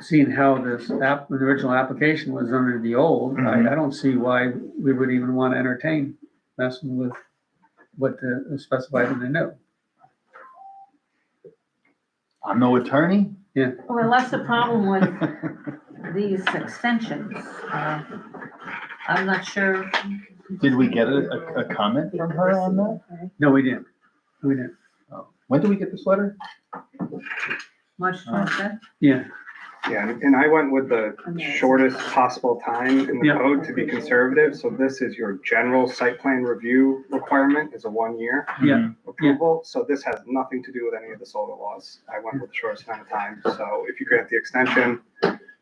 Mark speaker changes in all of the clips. Speaker 1: seeing how this app, the original application was under the old, I, I don't see why we would even want to entertain messing with what uh, is specified in the new.
Speaker 2: I'm no attorney.
Speaker 3: Well, unless the problem with these extensions, uh, I'm not sure.
Speaker 2: Did we get a, a, a comment from her on that?
Speaker 1: No, we didn't. We didn't.
Speaker 2: Oh, When did we get this letter?
Speaker 3: March
Speaker 2: Uh.
Speaker 3: twenty-fifth?
Speaker 1: Yeah,
Speaker 4: Yeah, and I went with the shortest possible time in the
Speaker 1: Yeah.
Speaker 4: code to be conservative, so this is your general site plan review requirement is a one-year
Speaker 2: Mm-hmm.
Speaker 1: Yeah.
Speaker 4: approval, so this has nothing to do with any of the solar laws. I went with the shortest amount of time, so if you grant the extension,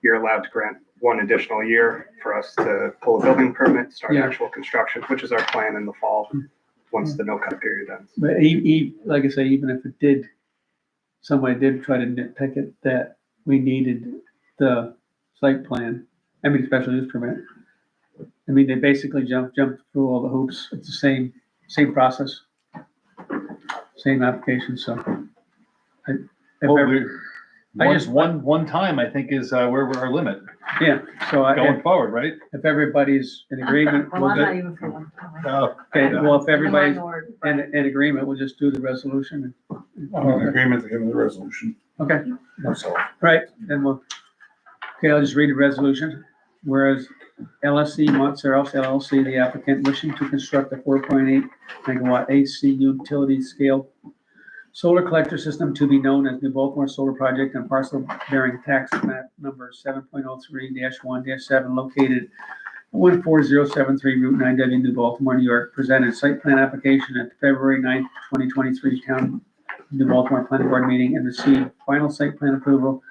Speaker 4: you're allowed to grant one additional year for us to pull a building permit, start
Speaker 1: Yeah.
Speaker 4: actual construction, which is our plan in the fall, once the no-cut period ends.
Speaker 1: but e- e- like I say, even if it did, somebody did try to nitpick it, that we needed the site plan, I mean, special use permit. I mean, they basically jumped, jumped through all the hoops. It's the same, same process. Same application, so. I- if
Speaker 2: Well,
Speaker 1: ever-
Speaker 2: we-
Speaker 1: I
Speaker 2: One,
Speaker 1: just-
Speaker 2: one, one time, I think, is uh, where we're our limit
Speaker 1: Yeah, so I-
Speaker 2: going forward, right?
Speaker 1: if everybody's in agreement,
Speaker 3: Well,
Speaker 1: we'll
Speaker 3: I'm not
Speaker 1: do,
Speaker 3: even for one.
Speaker 2: Uh,
Speaker 1: okay, well, if everybody's
Speaker 3: Minority,
Speaker 1: in,
Speaker 3: but
Speaker 1: in agreement, we'll just do the resolution.
Speaker 5: I'm in agreement to give them the resolution
Speaker 1: Okay.
Speaker 5: myself.
Speaker 1: Right, then we'll, okay, I'll just read the resolution. Whereas E LSC Montserrat LLC, the applicant wishing to construct a four point eight megawatt AC utility scale solar collector system to be known as New Baltimore Solar Project and parcel bearing tax map number seven point oh three one seven located one four zero seven three Route nine W, New Baltimore, New York, presented site plan application at the February 9th, twenty twenty-three town New Baltimore Planning Board meeting and received final site plan approval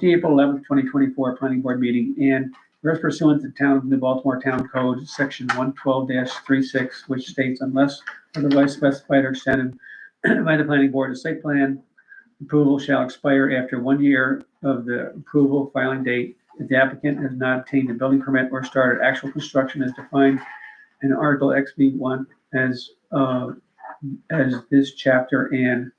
Speaker 1: the April eleventh, twenty twenty-four planning board meeting and whereas pursuant to town of New Baltimore Town Code, section one twelve 36 which states unless otherwise specified or extended by the planning board, a site plan approval shall expire after one year of the approval filing date if the applicant has not obtained a building permit or started actual construction as defined in Article XB one as, uh, as this chapter and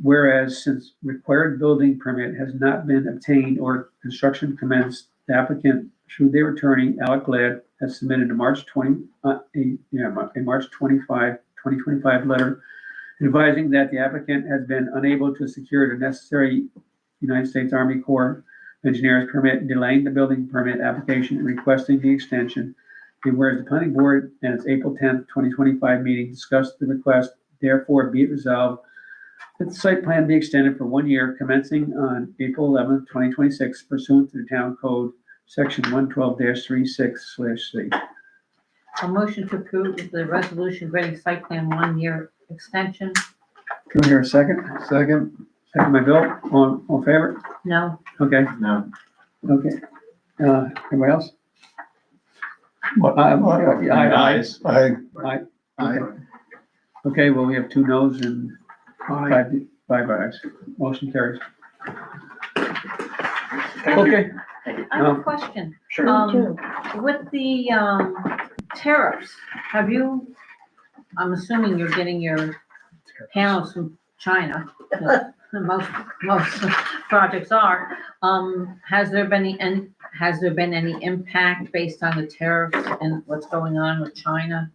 Speaker 1: Whereas since required building permit has not been obtained or construction commenced, the applicant through their attorney Alec Glad has submitted a March twenty, uh, a, yeah, Mar- a March 25, 2025 letter advising that the applicant has been unable to secure the necessary United States Army Corps of Engineers permit, delaying the building permit application and requesting the extension. And whereas the planning board and its April tenth, twenty twenty-five meeting discussed the request, therefore be it resolved that the site plan be extended for one year commencing on April eleventh, twenty twenty-six pursuant to the town code, section one twelve 36 slash C.
Speaker 3: A motion to approve the resolution granting site plan one-year extension,
Speaker 1: Can we hear a second?
Speaker 2: Second?
Speaker 1: Second by Bill, all, all in favor?
Speaker 3: no,
Speaker 1: Okay,
Speaker 2: No.
Speaker 1: okay. Uh, anybody else? I'm-
Speaker 5: Aye.
Speaker 1: Aye.
Speaker 2: Ayes.
Speaker 5: I,
Speaker 2: Aye.
Speaker 1: Okay, well, we have two noes and five, five ayes. Motion carries.
Speaker 4: Thank you.
Speaker 1: Okay,
Speaker 3: I have
Speaker 1: No.
Speaker 3: a question.
Speaker 4: Sure.
Speaker 3: Um, with the, um, tariffs, have you, I'm assuming you're getting your panels from China. the- the Most, most projects are, um, has there been any, and has there been any impact based on the tariffs and what's going on with China?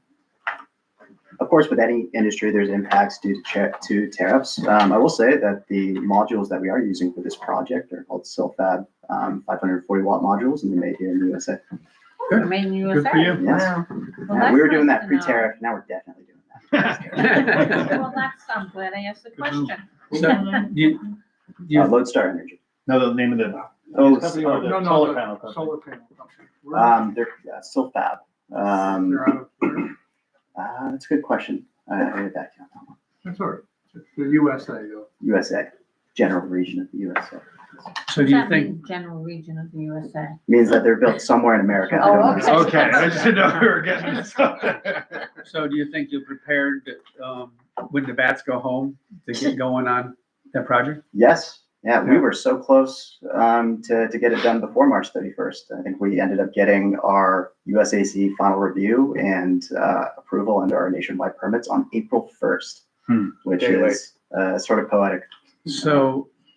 Speaker 6: Of course, with any industry, there's impacts due to cha- to tariffs. Um, I will say that the modules that we are using for this project are called Silfab, um, 540 watt modules, and they're made here in the USA.
Speaker 1: Good.
Speaker 3: Made in
Speaker 1: good for
Speaker 3: USA?
Speaker 1: you.
Speaker 6: Yes.
Speaker 3: Well,
Speaker 6: Yeah, we were
Speaker 3: that's
Speaker 6: doing
Speaker 3: nice
Speaker 6: that
Speaker 3: to know.
Speaker 6: pre-tariff, now we're definitely doing that.
Speaker 3: Well, that's, I'm glad I asked the question.
Speaker 1: So, you,
Speaker 6: Uh,
Speaker 1: you,
Speaker 6: Lodestar Energy.
Speaker 2: No, the name of the.
Speaker 6: Oh,
Speaker 2: Company
Speaker 6: so-
Speaker 2: or uh, the Solar panel company.
Speaker 7: panel company.
Speaker 6: Um, they're uh, Silfab. Um, uh, that's a good question. I I heard that count that one.
Speaker 7: That's all right. It's The USA though.
Speaker 6: USA, general region of the USA.
Speaker 1: so do
Speaker 3: Does
Speaker 1: you
Speaker 3: that
Speaker 1: think,
Speaker 3: mean General region of the USA.
Speaker 6: Means that they're built somewhere in America. I
Speaker 3: Oh,
Speaker 6: don't know.
Speaker 3: okay.
Speaker 2: Okay, I just didn't know we were getting this up.
Speaker 1: so do you think you're prepared, um, when the bats go home to get going on that project?
Speaker 6: Yes, yeah, we were so close um, to, to get it done before March 31st. I think we ended up getting our USAC final review and uh, approval under our nationwide permits on April 1st,
Speaker 2: Hmm.
Speaker 6: which
Speaker 4: Day late.
Speaker 6: is uh, sort of poetic.
Speaker 1: So